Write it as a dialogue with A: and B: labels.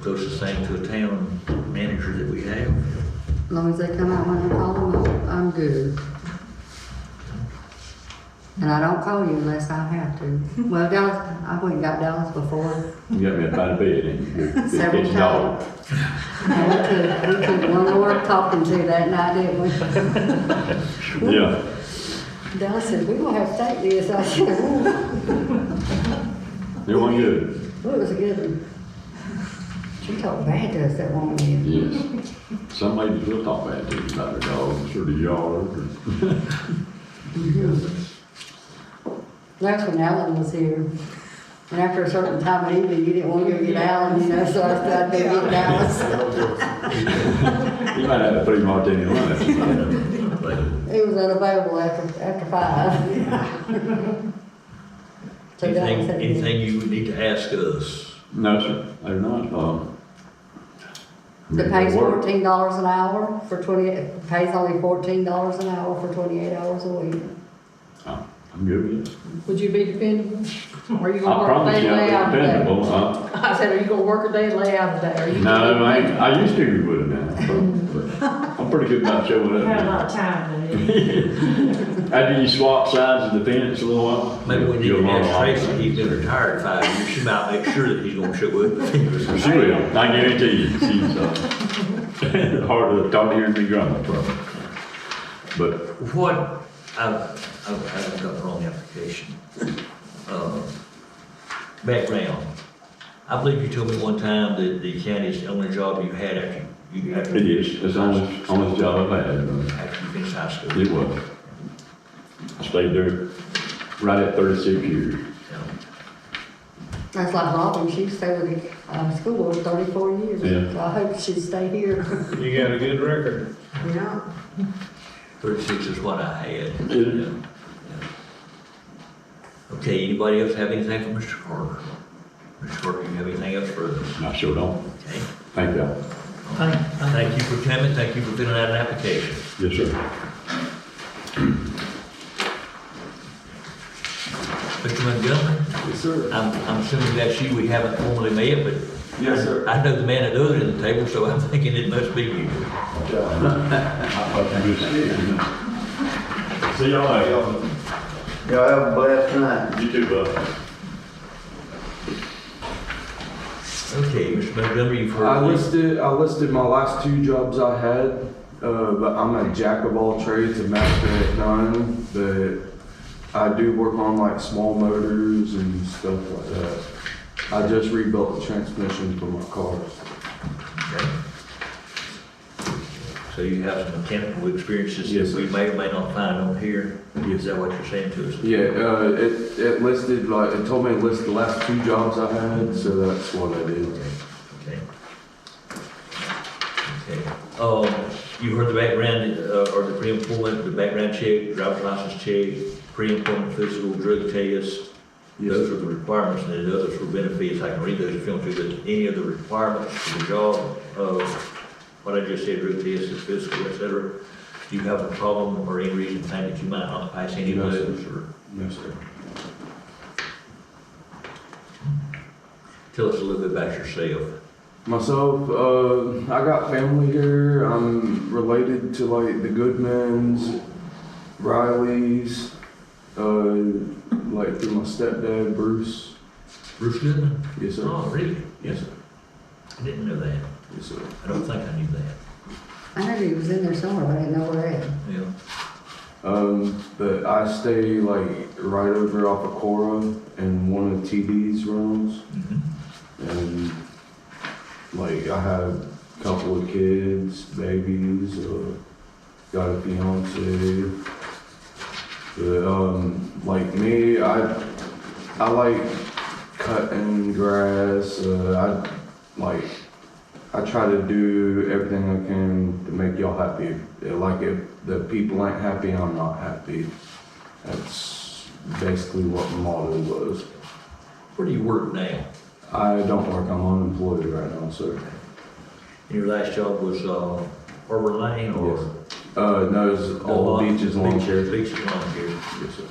A: closest thing to a town manager that we have.
B: As long as they come out when I call them, I'm- I'm good. And I don't call you unless I have to. Well, Dallas, I went and got Dallas before,
C: You got me up out of bed, and you It's
B: Several
C: getting dark.
B: and we took, we took one more talking to that night, didn't we?
C: Yeah,
B: Dallas said, we gonna have to take this, I said, "Ooh,
C: it wasn't good.
B: well, it was a good one. She talked bad to us, that woman did.
C: Yes. Some ladies will talk bad to you about their dogs or the yard or.
B: That's when Alan was here, and after a certain time of evening, you didn't wanna go get Alan, you know, so I started to get Dallas.
C: You might have a three martini lunch.
B: He was unavailable after, after five. So that
A: Anything,
B: was it.
A: anything you would need to ask us?
C: No, sir, they're not, um.
B: The pay's
C: work.
B: fourteen dollars an hour for twenty, pays only fourteen dollars an hour for twenty-eight hours a week.
C: I'm I'm good with it.
D: Would you be dependable? Or you
C: I
D: gonna work a
C: promise
D: day
C: you,
D: and lay
C: I'm
D: out a day?
C: dependable, huh?
D: I said, are you gonna work a day and lay out a day? Are you-
C: No, I, ain't- I used to be with him now, but I'm pretty good about showing
E: Had a
C: up.
E: lot of time, didn't
C: After you swap sides of the fence a little while.
A: Maybe we need
C: you'll
A: to
C: learn a lot.
A: ask Tracy, he's been retired five years, she might make sure that he's gonna show up.
C: She will, I guarantee you, she's, uh, hard to, hard to hear me grumble, probably. But,
A: What, I've, I've, I've got the wrong application. Um, Background, I believe you told me one time that the county's the only job you had after you, after
C: it is, it's the honest, honest job I've had,
A: after you finished high
C: but
A: school.
C: it was. I Stayed there right at thirty-six years.
B: That's like Robin, she stayed with the, uh, school board thirty-four years,
C: Yeah.
B: so I hope she'd stay here.
F: You got a good record.
B: Yeah.
A: Thirty-six is what I had.
C: Yeah.
A: Yeah. Okay, anybody else have anything for Mr. Carter? Mr. Carter, you have anything else for us?
C: I sure don't,
A: Okay.
C: thank y'all.
A: Thank you for coming, thank you for filling out an application.
C: Yes, sir.
A: Mr. Montgomery?
G: Yes, sir.
A: I'm, I'm assuming that's you, we haven't formally met, but
G: Yes, sir.
A: I know the man at the other end of the table, so I'm thinking it must be you.
C: See y'all later.
G: Y'all have a blessed night.
C: You too, bud.
A: Okay, Mr. Montgomery, you've
G: I
A: heard this.
G: listed, I listed my last two jobs I had, uh, but I'm a jack of all trades, a master at none, but I do work on like small motors and stuff like that. I just rebuilt the transmission for my cars.
A: Okay. So you have some mechanical experiences
G: Yes,
A: that
G: sir.
A: we may or may not find on here.
G: Yes.
A: Is that what you're saying to us?
G: Yeah, uh, it, it listed, like, it told me to list the last two jobs I had, so that's what I did.
A: Okay. Okay. Um, you heard the background, uh, or the pre-employment, the background check, driver's license check, pre-employment physical drug test, Those are the requirements, and then the others were benefits, I can read those if you want to, but any of the requirements for the job, uh, what I just said, root test, the physical, et cetera, do you have a problem or any reason to think that you might not pass any of
G: No, sir.
A: those, or
G: No, sir.
A: tell us a little bit about yourself?
G: Myself, uh, I got family here. I'm related to like the Goodmans, Rileys, uh, like through my stepdad, Bruce.
A: Bruce Goodman?
G: Yes, sir.
A: Oh, really?
G: Yes, sir.
A: I didn't know that,
G: Yes, sir.
A: I don't think I knew that,
B: I knew he was in there somewhere, but I didn't know where at.
A: yeah.
G: Um, but I stay like right over off of Cora and one of TD's rooms.
A: Mhm.
G: And like I have a couple of kids, babies, uh, got a fiance. But um, like me, I I like cutting grass. Uh, I like I try to do everything I can to make y'all happy. Uh, Like if the people ain't happy, I'm not happy. That's basically what the motto was.
A: Where do you work now?
G: I don't work. I'm unemployed right now, sir.
A: And your last job was, uh, Harbor Lane, or?
G: Yes. Uh, no, it's all beaches, lawn
A: Beach-
G: chairs.
A: Beaches, lawn care.
G: Yes, sir.